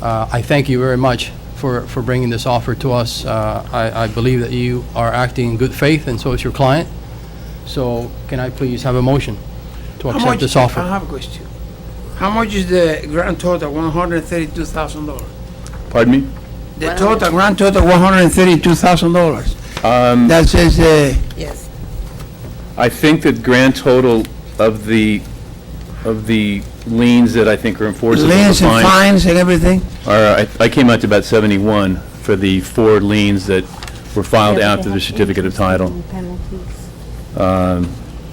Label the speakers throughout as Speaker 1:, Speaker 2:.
Speaker 1: Uh, I thank you very much for, for bringing this offer to us. Uh, I, I believe that you are acting in good faith, and so is your client. So can I please have a motion to
Speaker 2: How
Speaker 1: accept
Speaker 2: much-
Speaker 1: this offer?
Speaker 2: I have a question. How much is the grand total, one hundred and thirty-two thousand dollars?
Speaker 3: Pardon me?
Speaker 2: The total, grand total, one hundred and thirty-two thousand dollars.
Speaker 3: Um,
Speaker 2: That says, uh,
Speaker 4: Yes.
Speaker 3: I think the grand total of the, of the liens that I think are enforceable
Speaker 2: liens and
Speaker 3: fines
Speaker 2: fines and everything?
Speaker 3: are, I- I came out to about 71 for the four liens that were filed after the certificate of title. Um,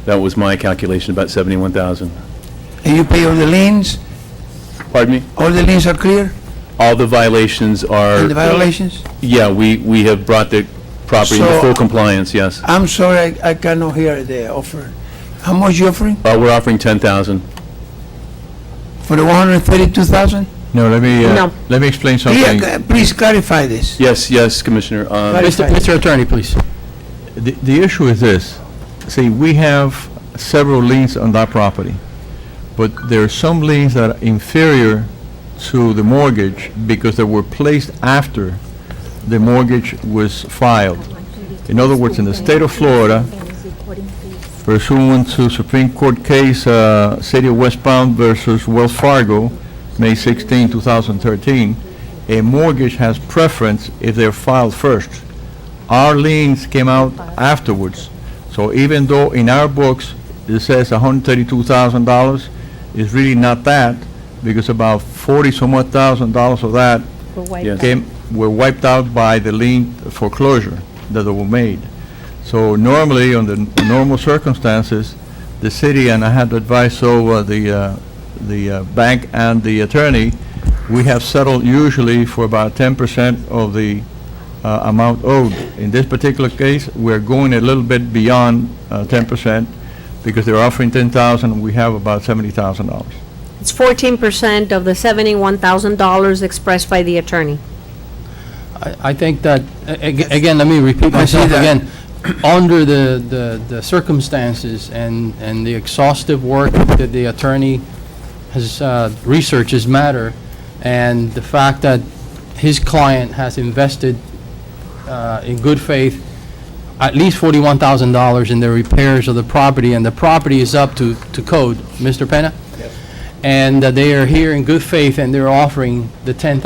Speaker 3: That was my calculation, about 71,000.
Speaker 2: And you pay all the liens,
Speaker 3: Pardon me?
Speaker 2: all the liens are clear,
Speaker 3: All the violations
Speaker 2: and the
Speaker 3: are,
Speaker 2: violations?
Speaker 3: yeah, we, we have brought the property into
Speaker 2: So-
Speaker 3: full compliance, yes. Uh,
Speaker 2: I'm sorry, I I cannot hear the offer. How much you offering
Speaker 3: We're offering 10,000.
Speaker 2: for the one hundred and thirty-two thousand? uh,
Speaker 5: No, let me, uh,
Speaker 4: No.
Speaker 5: let me explain something.
Speaker 2: Please clarify this.
Speaker 3: Yes, yes, Commissioner. um,
Speaker 2: Right.
Speaker 1: Mr. Mr. Attorney, please.
Speaker 5: The the issue is this, see, we have several liens on that property, but there are some liens that are inferior to the mortgage because they were placed after the mortgage was filed. In other words, in the state of Florida, pursuant to Supreme Court case, uh, City of West Palm versus Wells Fargo, May 16, 2013, a mortgage has preference if they're filed first. Our liens came out afterwards. So even though in our books, it says $132,000, it's really not that, because about 40 some odd thousand dollars of that
Speaker 3: Yes.
Speaker 5: came, were wiped out by the lien foreclosure that were made. So normally, under n- normal circumstances, the city, and I had advice so the, uh, the uh, bank and the attorney, we have settled usually for about 10% of the uh, amount owed. In this particular case, we're going a little bit beyond uh, 10% because they're offering 10,000, we have about $70,000.
Speaker 4: It's fourteen percent of the seventy-one thousand dollars expressed by the attorney.
Speaker 1: I I think that, a- ag- again, let me repeat
Speaker 2: I see
Speaker 1: myself
Speaker 2: that.
Speaker 1: again. Under the- the the circumstances and and the exhaustive work that the attorney has uh, researched this matter, and the fact that his client has invested uh, in good faith at least $41,000 in the repairs of the property, and the property is up to to code, Mr. Penna? and that they are here in good faith and they're offering the $10,000,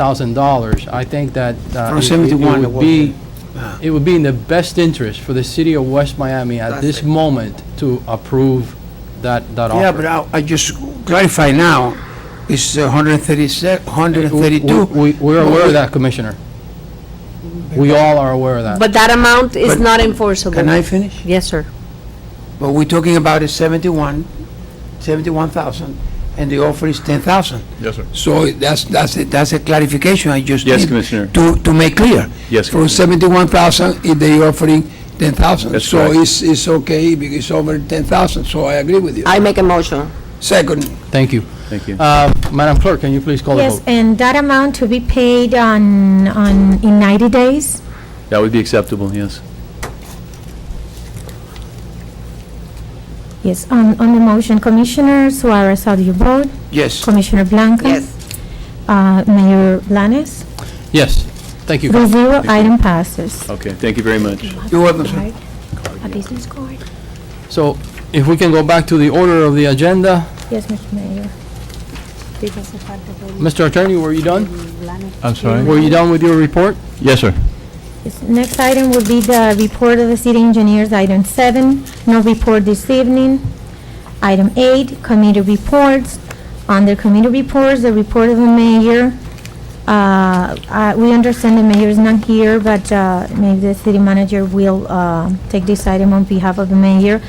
Speaker 1: I think that uh,
Speaker 2: From
Speaker 1: it- it-
Speaker 2: 71
Speaker 1: it
Speaker 2: it
Speaker 1: would
Speaker 2: was,
Speaker 1: be,
Speaker 2: Ah.
Speaker 1: it would be in the best interest for the city of West Miami at
Speaker 2: That's
Speaker 1: this
Speaker 2: it.
Speaker 1: moment to approve that, that offer.
Speaker 2: Yeah, but I, I just clarify now, it's 136,
Speaker 1: We-
Speaker 2: 132.
Speaker 1: we- We're aware of that, Commissioner. We all are aware of that.
Speaker 4: But that amount is
Speaker 2: But-
Speaker 4: not enforceable.
Speaker 2: Can I finish?
Speaker 4: Yes, sir.
Speaker 2: But we're talking about is 71, 71,000, and the offer is 10,000.
Speaker 5: Yes, sir.
Speaker 2: So that's, that's, a- that's a clarification I just
Speaker 3: Yes,
Speaker 2: need
Speaker 3: Commissioner.
Speaker 2: To, to make clear.
Speaker 3: Yes,
Speaker 2: From
Speaker 3: Commissioner.
Speaker 2: 71,000, if they offering 10,000.
Speaker 3: That's
Speaker 2: So
Speaker 3: correct.
Speaker 2: it's, it's okay, because it's over 10,000, so I agree with you.
Speaker 4: I make a motion.
Speaker 2: Second,
Speaker 1: Thank you.
Speaker 3: Thank you.
Speaker 1: Uh, Madam Clerk, can you please call the vote?
Speaker 6: Yes, and that amount to be paid on, on, in 90 days?
Speaker 3: That would be acceptable, yes.
Speaker 6: Yes, on, on the motion, Commissioner Suarez, how do you vote?
Speaker 2: yes.
Speaker 6: Commissioner Blanca? Uh, Mayor Blanes?
Speaker 1: Yes, thank you.
Speaker 6: Three zero, item passes.
Speaker 3: Okay, thank you very much.
Speaker 2: You're welcome, sir.
Speaker 6: A business card?
Speaker 1: So if we can go back to the order of the agenda,
Speaker 6: Yes, Mr. Mayor.
Speaker 1: Mr. Attorney, were you done?
Speaker 5: I'm sorry?
Speaker 1: Were you done with your report?
Speaker 5: Yes, sir.
Speaker 6: Yes, Next item will be the report of the city engineers, item seven, no report this evening. Item eight, committee reports. Under committee reports, the report of the mayor. Uh, I- We understand the mayor is not here, but uh, maybe the city manager will uh, take this item on behalf of the mayor,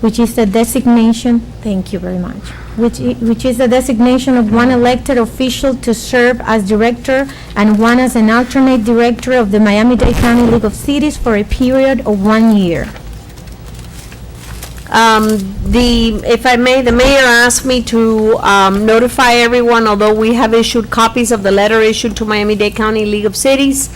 Speaker 6: which is the designation, thank you very much, which i- which is the designation of one elected official to serve as director and one as an alternate director of the Miami-Dade County League of Cities for a period of one year.
Speaker 4: Um, the, if I may, the mayor asked me to, um, notify everyone, although we have issued copies of the letter issued to Miami-Dade County League of Cities.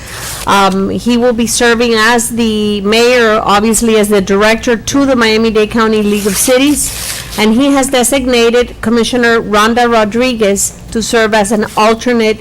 Speaker 4: Um, he will be serving as the mayor, obviously as the director to the Miami-Dade County League of Cities. And he has designated Commissioner Rhonda Rodriguez to serve as an alternate